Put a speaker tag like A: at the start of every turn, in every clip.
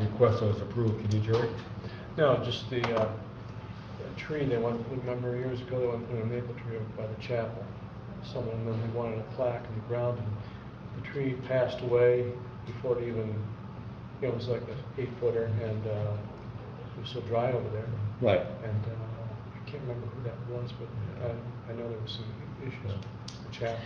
A: request that was approved, can you, Jerry?
B: No, just the uh, a tree, they went, remember years ago, they went, put a maple tree up by the chapel. Someone, then they wanted a plaque in the ground, and the tree passed away before it even, you know, it was like an eight footer, and uh, it was so dry over there.
A: Right.
B: And uh, I can't remember who that was, but I, I know there was some issues with the chapel.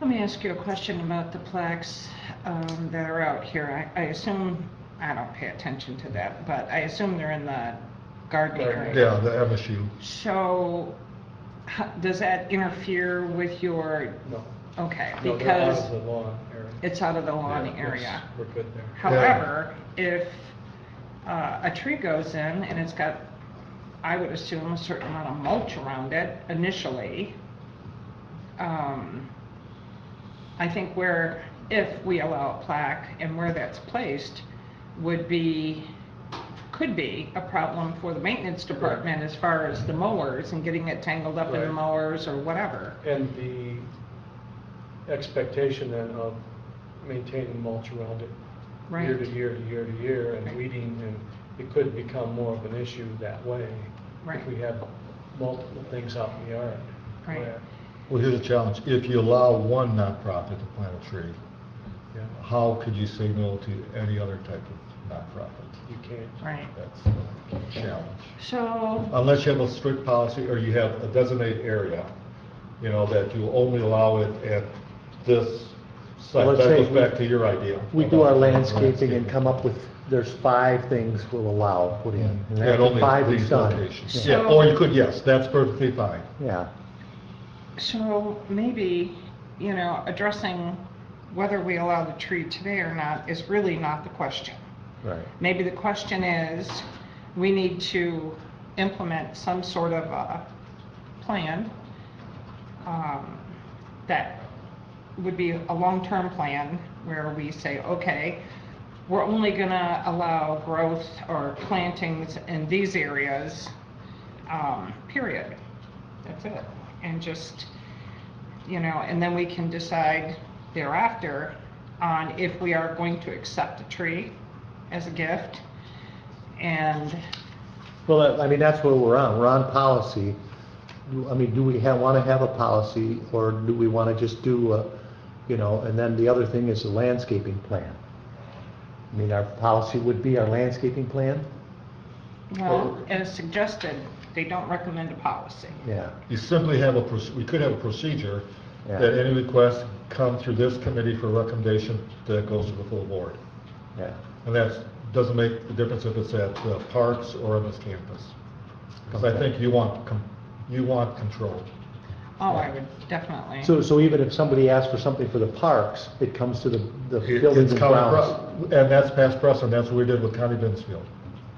C: Let me ask you a question about the plaques um, that are out here. I I assume, I don't pay attention to that, but I assume they're in the garden
B: Garden,
C: area.
A: Yeah, the MSU.
C: So, ho- does that interfere with your,
B: No.
C: okay,
B: No, they're out of
C: because
B: the lawn area.
C: it's out of the lawn
B: Yeah, it's-
C: area?
B: We're good there.
C: However, if uh, a tree goes in and it's got, I would assume, a certain amount of mulch around it initially, um, I think where, if we allow a plaque and where that's placed, would be, could be a problem for the maintenance department as far as the mowers and getting it tangled up in the
B: Right.
C: mowers or whatever.
B: And the expectation then of maintaining mulch around it year
C: Right.
B: to year to year to year and
C: Right.
B: weeding, and it could become more of an issue that way.
C: Right.
B: If we have multiple things out in the yard.
C: Right.
B: where-
A: Well, here's a challenge. If you allow one nonprofit to plant a tree,
B: Yeah,
A: how could you say no to any other type of nonprofit?
B: you can't.
C: Right.
A: That's a challenge.
C: So,
A: Unless you have a strict policy, or you have a designated area, you know, that you only allow it at this site.
D: Let's
A: That
D: say
A: goes
D: we-
A: back to your idea.
D: We do our
A: about
D: landscaping and come up with, there's five things we'll allow put in. and
A: At
D: after
A: only
D: five is
A: these
D: done.
A: locations.
D: Yeah.
A: Yeah, or you could, yes, that's perfectly fine.
D: Yeah,
C: So maybe, you know, addressing whether we allow the tree today or not is really not the question.
D: right.
C: Maybe the question is, we need to implement some sort of a plan um, that would be a long-term plan where we say, okay, we're only gonna allow growth or plantings in these areas, um, period. That's it. And just, you know, and then we can decide thereafter on if we are going to accept a tree as a gift. And,
D: Well, that- I mean, that's where we're on, we're on policy. Do- I mean, do we have, want to have a policy, or do we want to just do, a- you know, and then the other thing is the landscaping plan. I mean, our policy would be our landscaping plan?
C: well, as suggested, they don't recommend a policy.
D: Yeah,
A: You simply have a, proc- we could have a procedure
D: Yeah.
A: that any requests come through this committee for recommendation that goes to the full board.
D: yeah.
A: And that doesn't make the difference if it's at the parks or on this campus. Because I think you want, com- you want control.
C: Oh, I would definitely.
D: So, so even if somebody asks for something for the parks, it comes to the, the
A: It- it's
D: buildings and
A: common
D: grounds?
A: pre- And that's past precedent, that's what we did with County Bensfield.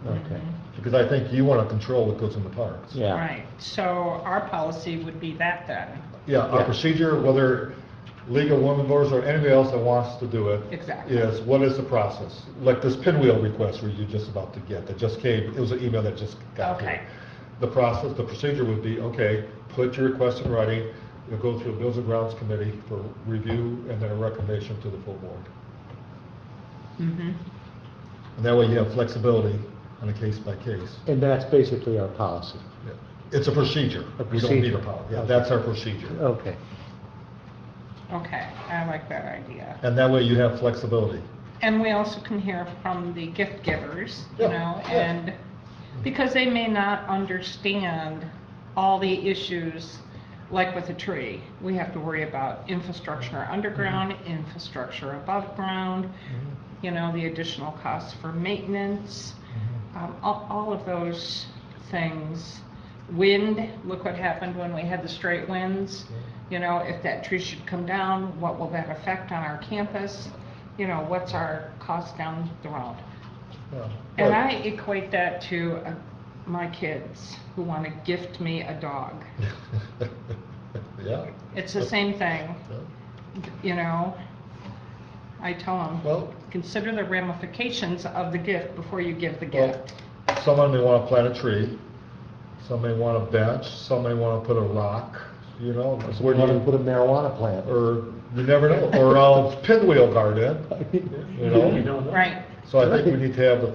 D: Okay,
A: Because I think you want to control what goes in the parks.
D: yeah.
C: Right, so our policy would be that then,
A: Yeah, our
D: Yeah.
A: procedure, whether League of Women Voters or anybody else that wants to do it,
C: exactly.
A: is what is the process? Like this pinwheel request where you're just about to get, that just came, it was an email that just got
C: Okay.
A: here. The process, the procedure would be, okay, put your request in writing, you'll go through a Bills and Grounds Committee for review and then a recommendation to the full board.
C: Mhm.
A: And that way you have flexibility on a case by case.
D: And that's basically our policy.
A: Yeah. It's a procedure.
D: A
A: We don't need a
D: procedure. Oh.
A: policy. Yeah,
D: Okay.
A: that's our procedure.
D: Okay,
C: Okay, I like that idea.
A: And that way you have flexibility.
C: And we also can hear from the gift givers, you
A: Yeah,
C: know,
A: yeah.
C: and because they may not understand all the issues, like with a tree, we have to worry about infrastructure underground,
A: Mm-hmm.
C: infrastructure above ground, you know, the additional costs for maintenance, um, all, all of those things. Wind, look what happened when we had the straight winds. You know, if that tree should come down, what will that affect on our campus? You know, what's our cost down the road? And I equate that to uh, my kids who want to gift me a dog.
A: Yeah.
C: It's the same thing,
A: Yeah.
C: you know? I tell them,
A: Well,
C: consider the ramifications of the gift before you give the
A: Well-
C: gift.
A: someone may want to plant a tree, some may want a bench, some may want to put a rock, you know,
D: so we're gonna put a marijuana plant.
A: or you never know, or I'll pinwheel garden, you
B: You
A: know?
B: don't know.
C: Right,
A: So I think we need to have the